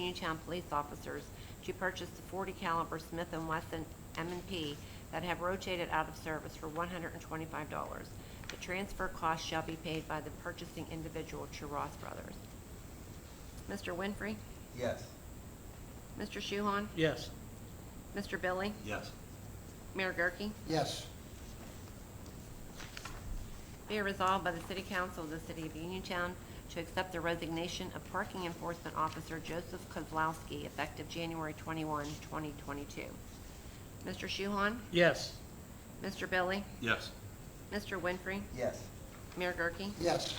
Uniontown police officers to purchase the 40 caliber Smith & Wesson m and P that have rotated out of service for $125. The transfer cost shall be paid by the purchasing individual to Ross Brothers. Mr. Winfrey? Yes. Mr. Shuhon? yes, Mr. Billy? Yes. Mayor Gurke? Yes. Be it resolved by the City Council of the City of Uniontown to accept the resignation of Parking Enforcement Officer Joseph Kozlowski effective January 21, 2022. Mr. Shuhon? yes, Mr. Billy? Yes. Mr. Winfrey? Yes. Mayor Gurke? Yes.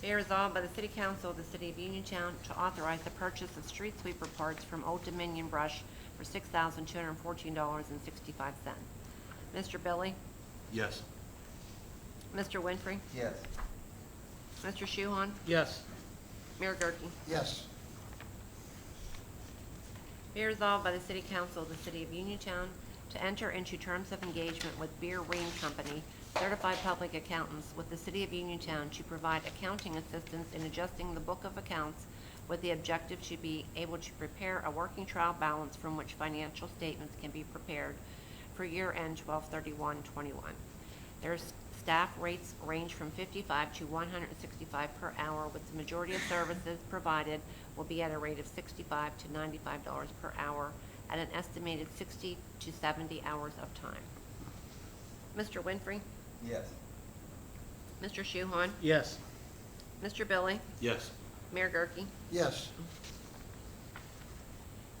Be it resolved by the City Council of the City of Uniontown to authorize the purchase of street sweeper parts from Old Dominion Brush for $6,214.65. Mr. Billy? Yes. Mr. Winfrey? Yes. Mr. Shuhon? yes, Mayor Gurke? Yes. Be resolved by the City Council of the City of Uniontown to enter into terms of engagement with Beer Ream Company, certified public accountants with the City of Uniontown to provide accounting assistance in adjusting the book of accounts with the objective to be able to prepare a working trial balance from which financial statements can be prepared for year-end 12 21 Their s- staff rates range from 55 to 165 per hour, with the majority of services provided will be at a rate of 65 to 95 dollars per hour at an estimated 60 to 70 hours of time. Mr. Winfrey? Yes. Mr. Shuhon? yes, Mr. Billy? Yes. Mayor Gurke? Yes.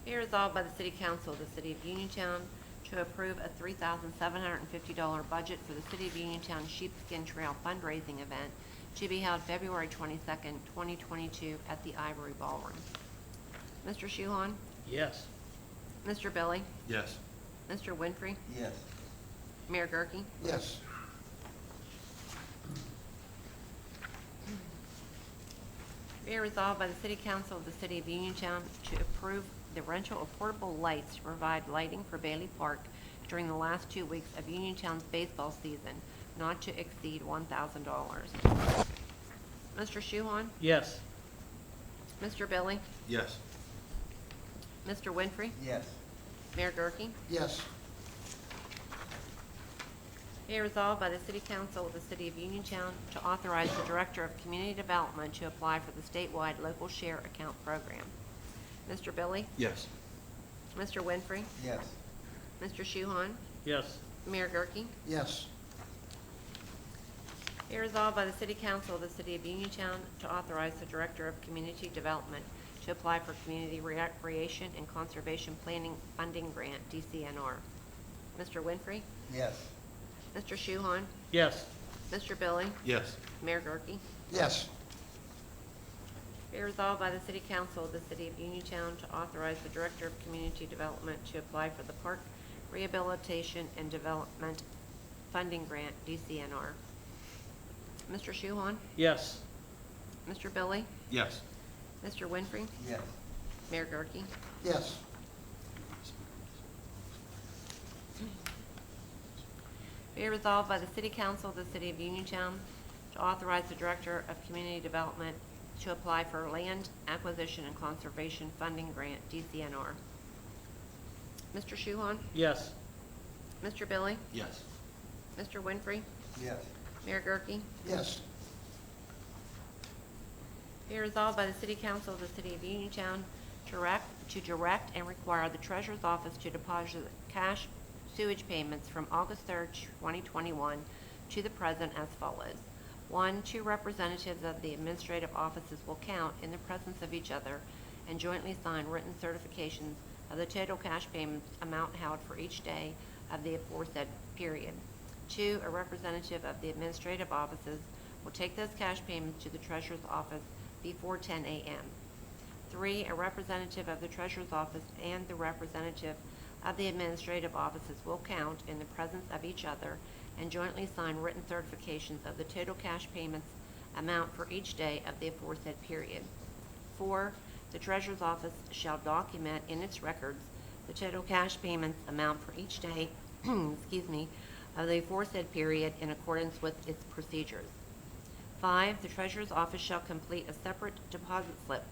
Be resolved by the City Council of the City of Uniontown to approve a three thousand seven hundred and fifty dollar budget for the City of Uniontown Sheepskin Trail fundraising event to be held February twenty-second, twenty twenty-two at the Ivory Ballroom. Mr. Shuhon? yes, Mr. Billy? Yes. Mr. Winfrey? Yes. Mayor Gurke? Yes. Be it resolved by the City Council of the City of Uniontown to approve the rental of portable lights to provide lighting for Bailey Park during the last two weeks of Uniontown's baseball season, not to exceed one thousand dollars. Mr. Shuhon? yes, Mr. Billy? Yes. Mr. Winfrey? Yes. Mayor Gurke? Yes. Be it resolved by the City Council of the City of Uniontown to authorize the Director of Community Development to apply for the statewide local share account program. Mr. Billy? Yes. Mr. Winfrey? Yes. Mr. Shuhon? yes, Mayor Gurke? Yes. Be resolved by the City Council of the City of Uniontown to authorize the Director of Community Development to apply for Community Recreation and Conservation Planning Funding Grant, DCNR. Mr. Winfrey? Yes. Mr. Shuhon? yes, Mr. Billy? Yes. Mayor Gurke? Yes. Be resolved by the City Council of the City of Uniontown to authorize the Director of Community Development to apply for the Park Rehabilitation and Development Funding Grant, DCNR. Mr. Shuhon? yes, Mr. Billy? Yes. Mr. Winfrey? Yes. Mayor Gurke? Yes. Be it resolved by the City Council of the City of Uniontown to authorize the Director of Community Development to apply for Land Acquisition and Conservation Funding Grant, DCNR. Mr. Shuhon? yes, Mr. Billy? Yes. Mr. Winfrey? Yes. Mayor Gurke? Yes. Be it resolved by the City Council of the City of Uniontown to direct, to direct and require the Treasurer's Office to deposit cash sewage payments from August third, twenty twenty-one to the present as follows. One, two representatives of the administrative offices will count in the presence of each other and jointly sign written certifications of the total cash payments amount held for each day of the aforesaid period. Two, a representative of the administrative offices will take those cash payments to the treasurer's office before 10 a.m. Three, a representative of the treasurer's office and the representative of the administrative offices will count in the presence of each other and jointly sign written certifications of the total cash payments amount for each day of the aforesaid period. Four, the treasurer's office shall document in its records the total cash payments amount for each day, excuse me, of the aforesaid period in accordance with its procedures. Five, the treasurer's office shall complete a separate deposit slip